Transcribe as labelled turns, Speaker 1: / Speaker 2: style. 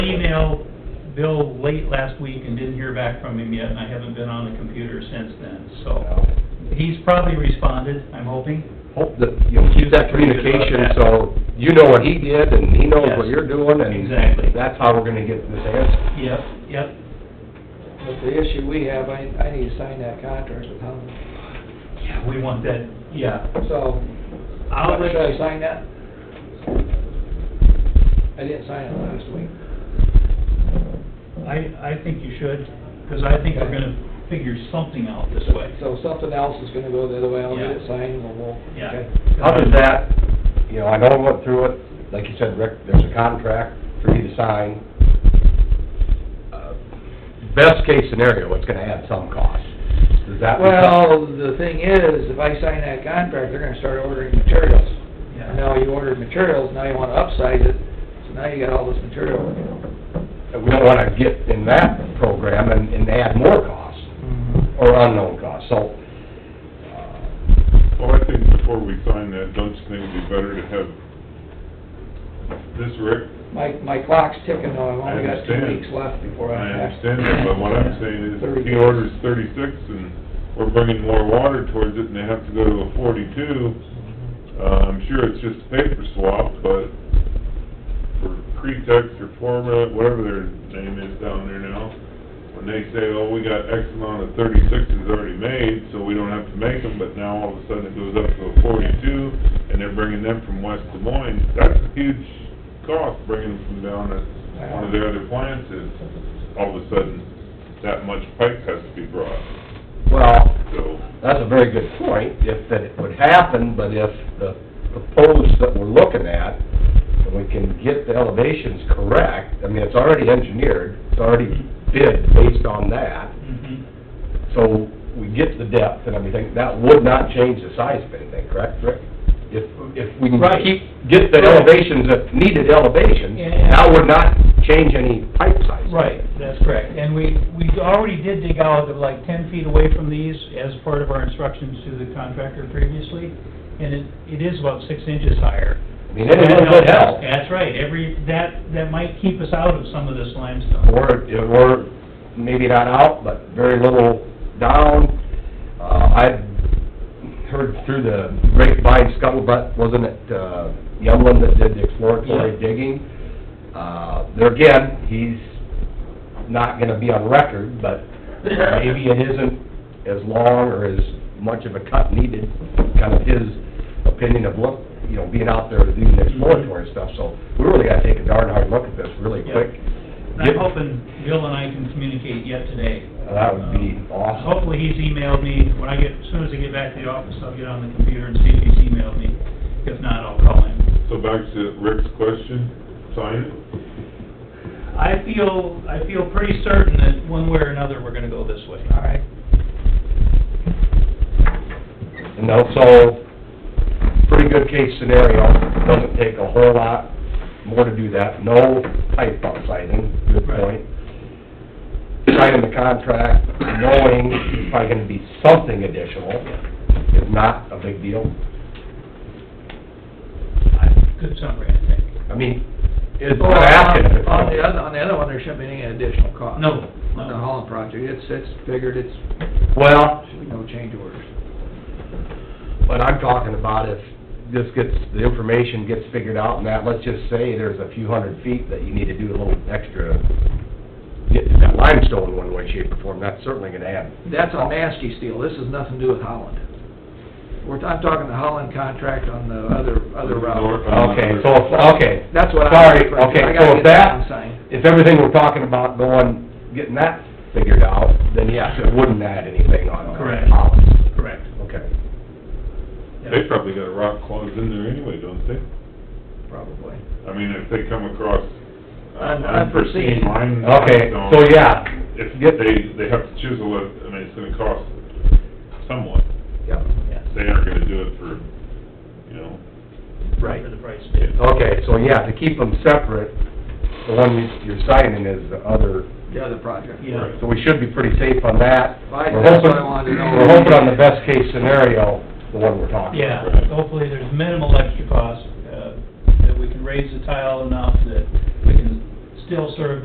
Speaker 1: emailed Bill late last week and didn't hear back from him yet, and I haven't been on the computer since then, so.
Speaker 2: Well,
Speaker 1: He's probably responded, I'm hoping.
Speaker 2: Hope that you'll keep that communication, so you know what he did, and he knows what you're doing, and...
Speaker 1: Exactly.
Speaker 2: That's how we're gonna get this answer.
Speaker 1: Yep, yep.
Speaker 3: But the issue we have, I, I need to sign that contract with Helen.
Speaker 1: Yeah, we want that, yeah.
Speaker 3: So,
Speaker 1: I'll let
Speaker 3: should I sign that? I didn't sign it last week.
Speaker 1: I, I think you should, because I think we're gonna figure something out this way.
Speaker 3: So something else is gonna go the other way, I'll get it
Speaker 1: Yeah.
Speaker 3: signed and we'll,
Speaker 1: Yeah.
Speaker 3: okay.
Speaker 2: How does that, you know, I know I went through it, like you said, Rick, there's a contract for you to sign. Uh, Best case scenario, it's gonna add some cost. Does that...
Speaker 3: Well, the thing is, if I sign that contract, they're gonna start ordering materials.
Speaker 1: Yeah.
Speaker 3: Now you ordered materials, now you wanna upsize it, so now you got all this material.
Speaker 2: We don't wanna get in that program and, and add more costs,
Speaker 1: Mm-hmm.
Speaker 2: or unknown costs, so... uh,
Speaker 4: Well, I think before we sign that, don't you think it'd be better to have this, Rick?
Speaker 3: My, my clock's ticking though, I've only got two
Speaker 4: understand.
Speaker 3: weeks left before
Speaker 4: I
Speaker 3: I have.
Speaker 4: understand that, but what I'm saying is, he orders thirty-six, and we're bringing more water towards it, and they have to go to a forty-two. Uh, I'm sure it's just a paper swap, but for pretext or format, whatever their name is down there now, when they say, oh, we got X amount of thirty-sixes already made, so we don't have to make them, but now all of a sudden it goes up to a forty-two, and they're bringing them from West Des Moines, that's a huge cost, bringing them from down at one of their other plants is, all of a sudden, that much pipe has to be brought,
Speaker 2: Well,
Speaker 4: so.
Speaker 2: That's a very good point, if that it would happen, but if the proposed that we're looking at, and we can get the elevations correct, I mean, it's already engineered, it's already bid based on that,
Speaker 1: Mhm.
Speaker 2: so we get the depth and everything, that would not change the size of anything, correct, Rick? If, if we can
Speaker 1: Right.
Speaker 2: keep, get the elevations, that needed elevations,
Speaker 1: Yeah, yeah.
Speaker 2: that would not change any pipe size.
Speaker 1: Right, that's correct. And we, we already did dig out of like ten feet away from these as part of our instructions to the contractor previously, and it, it is about six inches higher.
Speaker 2: I mean, it would help.
Speaker 1: That's right, every, that, that might keep us out of some of this limestone.
Speaker 2: or, or maybe not out, but very little down. Uh, I've heard through the grapevine scuttlebutt, wasn't it, uh, Youngland that did the exploratory
Speaker 1: Yeah.
Speaker 2: digging? Uh, there again, he's not gonna be on record, but maybe it isn't as long or as much of a cut needed, kind of his opinion of look, you know, being out there doing the exploratory stuff, so we really gotta take a darn hard look at this really
Speaker 1: Yeah.
Speaker 2: quick.
Speaker 1: And I'm hoping Bill and I can communicate yet today. Um,
Speaker 2: That would be awesome.
Speaker 1: Hopefully, he's emailed me, when I get, as soon as I get back to the office, I'll get on the computer and see if he's emailed me. If not, I'll call him.
Speaker 4: So back to Rick's question, sign it?
Speaker 1: I feel, I feel pretty certain that one way or another, we're gonna go this way.
Speaker 3: All right.
Speaker 2: And also, pretty good case scenario, doesn't take a whole lot more to do that, no pipe upsizing, good
Speaker 1: Right.
Speaker 2: point. Signing the contract, knowing it's probably gonna be something additional, is not a big deal.
Speaker 1: Good summary, I think.
Speaker 2: I mean, it's not asking if it's...
Speaker 3: On the other, on the other one, there shouldn't be any additional cost.
Speaker 1: No,
Speaker 3: On
Speaker 1: no.
Speaker 3: the Holland project, it's, it's figured, it's,
Speaker 2: Well,
Speaker 3: should be no change orders.
Speaker 2: But I'm talking about if this gets, the information gets figured out and that, let's just say there's a few hundred feet that you need to do a little extra, get that limestone one way, shape, or form, that's certainly gonna add.
Speaker 3: That's on Maskey steel, this has nothing to do with Holland. We're, I'm talking the Holland contract on the other, other route.
Speaker 4: North.
Speaker 2: Okay, so, okay.
Speaker 3: That's what I'm...
Speaker 2: Sorry,
Speaker 3: referring to.
Speaker 2: okay,
Speaker 3: I gotta
Speaker 2: so
Speaker 3: get
Speaker 2: if that,
Speaker 3: one signed.
Speaker 2: if everything we're talking about going, getting that figured out, then yes, it wouldn't add anything on
Speaker 1: Correct.
Speaker 2: Holland.
Speaker 1: Correct.
Speaker 2: Okay,
Speaker 4: They probably got a rock closed in there anyway, don't they?
Speaker 3: Probably.
Speaker 4: I mean, if they come across
Speaker 3: Un-
Speaker 4: uh, unforeseen
Speaker 3: unforeseen.
Speaker 4: line.
Speaker 2: okay,
Speaker 4: stone,
Speaker 2: so yeah,
Speaker 4: If
Speaker 2: Yep.
Speaker 4: they, they have to chisel it, I mean, it's gonna cost somewhat.
Speaker 2: yep,
Speaker 1: Yeah.
Speaker 4: They aren't gonna do it for, you know,
Speaker 2: right.
Speaker 1: For the price too.
Speaker 2: Okay, so yeah, to keep them separate, the one you- you're signing is the other,
Speaker 3: The other project.
Speaker 1: Yeah.
Speaker 2: so we should be pretty safe on that.
Speaker 3: Right,
Speaker 2: We're
Speaker 3: that's
Speaker 2: hoping-
Speaker 3: what I wanted to know.
Speaker 2: We're hoping on the best case scenario, the one we're talking about.
Speaker 1: Yeah, hopefully there's minimal extra cost, uh, that we can raise the tile enough that we can still serve